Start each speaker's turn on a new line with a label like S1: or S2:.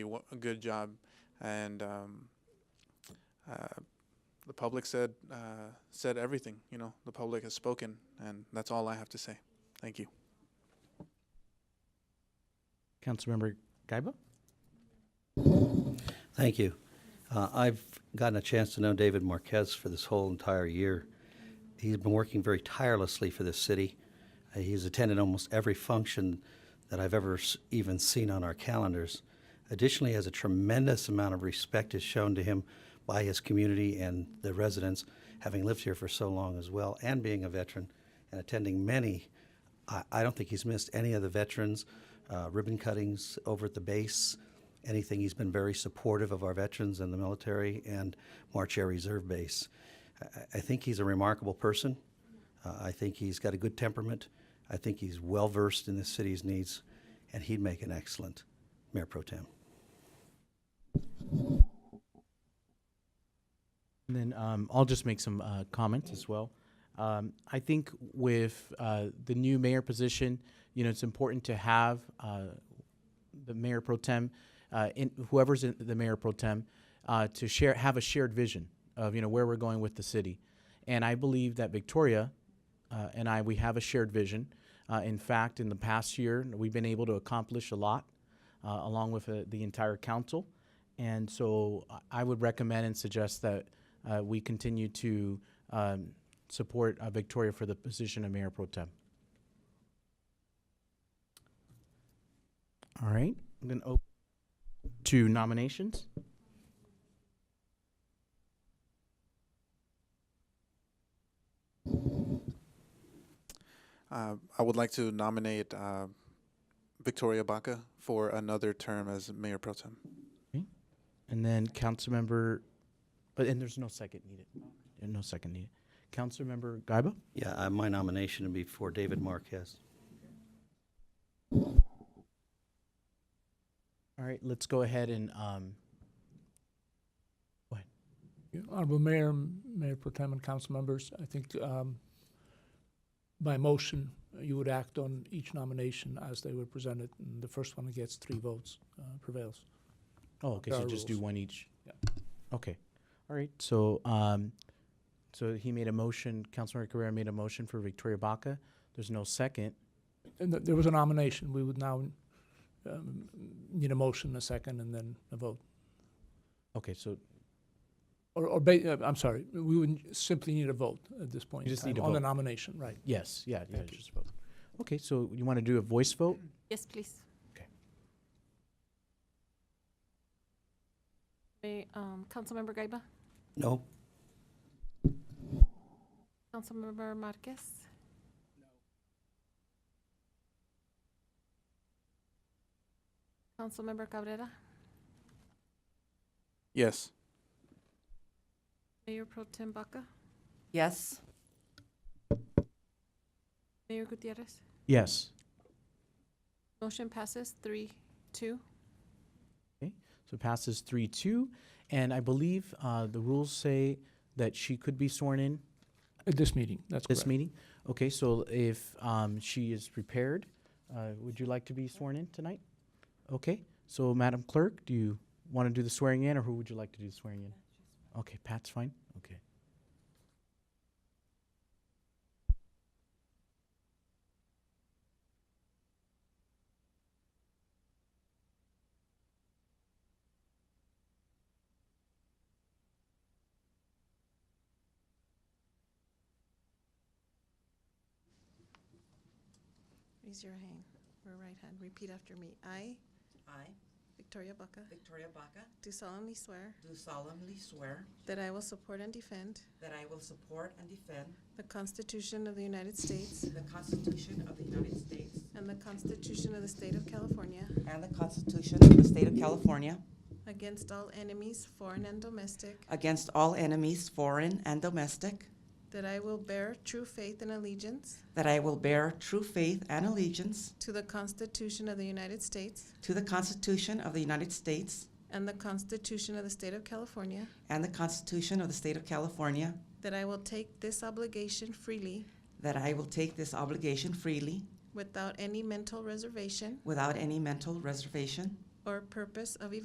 S1: a wo- a good job, and um, uh, the public said uh, said everything. You know, the public has spoken, and that's all I have to say. Thank you.
S2: Councilmember Gaiba?
S3: Thank you. Uh, I've gotten a chance to know David Marquez for this whole entire year. He's been working very tirelessly for this city. Uh, he's attended almost every function that I've ever s- even seen on our calendars. Additionally, has a tremendous amount of respect is shown to him by his community and the residents, having lived here for so long as well, and being a veteran and attending many. I, I don't think he's missed any of the veterans uh, ribbon cuttings over at the base anything. He's been very supportive of our veterans and the military and March Air Reserve Base. I, I- I think he's a remarkable person. Uh, I think he's got a good temperament. I think he's well versed in the city's needs, and he'd make an excellent mayor pro tem.
S2: And then um, I'll just make some uh, comments as well. Um, I think with uh, the new mayor position, you know, it's important to have uh, the mayor pro tem, uh, in, whoever's in the mayor pro tem, uh, to share have a shared vision of you know where we're going with the city, and I believe that Victoria uh, and I we have a shared vision. Uh, in fact, in the past year, we've been able to accomplish a lot, uh, along with uh, the entire council. And so I- I would recommend and suggest that uh, we continue to um, support uh, Victoria for the position of Mayor Pro Tem. All right, I'm going to open to nominations.
S1: Uh, I would like to nominate uh, Victoria Baca for another term as mayor pro tem.
S2: And then Councilmember, uh, and there's no second needed. Uh, No second needed. Councilmember Gaiba?
S3: Yeah, uh, my nomination would be for David Marquez.
S2: All right, let's go ahead and, um,
S4: Yeah, Honorable Mayor, Mayor Pro Tem and council members, I think um, by motion, you would act on each nomination as they were presented, and the first one that gets three votes uh, prevails.
S2: oh, okay,
S4: There
S2: so
S4: are
S2: just do
S4: rules.
S2: one each.
S4: Yeah.
S2: Okay, all right, so, um, so he made a motion, Councilmember Carrera made a motion for Victoria Baca. There's no second.
S4: And th- there was a nomination, we would now um, need a motion, a second, and then a vote.
S2: Okay, so
S4: Or, or ba- uh, I'm sorry, we would simply need a vote at this point
S2: You
S4: in
S2: just need
S4: time
S2: a
S4: on the
S2: vote.
S4: nomination, right?
S2: yes, yeah, yeah,
S4: Thank you.
S2: just vote. Okay, so you want to do a voice vote?
S5: Yes, please.
S2: Okay.
S5: Okay, um, Councilmember Gaiba,
S3: No,
S5: Councilmember Marquez, Councilmember Cabrera,
S1: Yes.
S5: Mayor Pro Tem Baca,
S6: Yes.
S5: Mayor Gutierrez.
S2: Yes.
S5: Motion passes three, two.
S2: So it passes three two, and I believe uh, the rules say that she could be sworn in
S4: At this meeting, that's
S2: this
S4: correct.
S2: meeting. Okay, so if um, she is prepared, uh, would you like to be sworn in tonight? Okay, so Madam Clerk, do you want to do the swearing in, or who would you like to do the swearing in? Okay, Pat's fine. Okay.
S5: Raise your hand, or right hand, repeat after me. I,
S6: I,
S5: Victoria Baca,
S6: Victoria Baca,
S5: do solemnly swear
S6: do solemnly swear
S5: that I will support and defend
S6: that I will support and defend
S5: the Constitution of the United States
S6: the Constitution of the United States
S5: and the Constitution of the State of California
S6: and the Constitution of the State of California
S5: against all enemies, foreign and domestic,
S6: against all enemies, foreign and domestic,
S5: that I will bear true faith and allegiance
S6: that I will bear true faith and allegiance
S5: to the Constitution of the United States
S6: to the Constitution of the United States
S5: and the Constitution of the State of California,
S6: and the Constitution of the State of California,
S5: that I will take this obligation freely
S6: that I will take this obligation freely
S5: without any mental reservation
S6: without any mental reservation
S5: or purpose of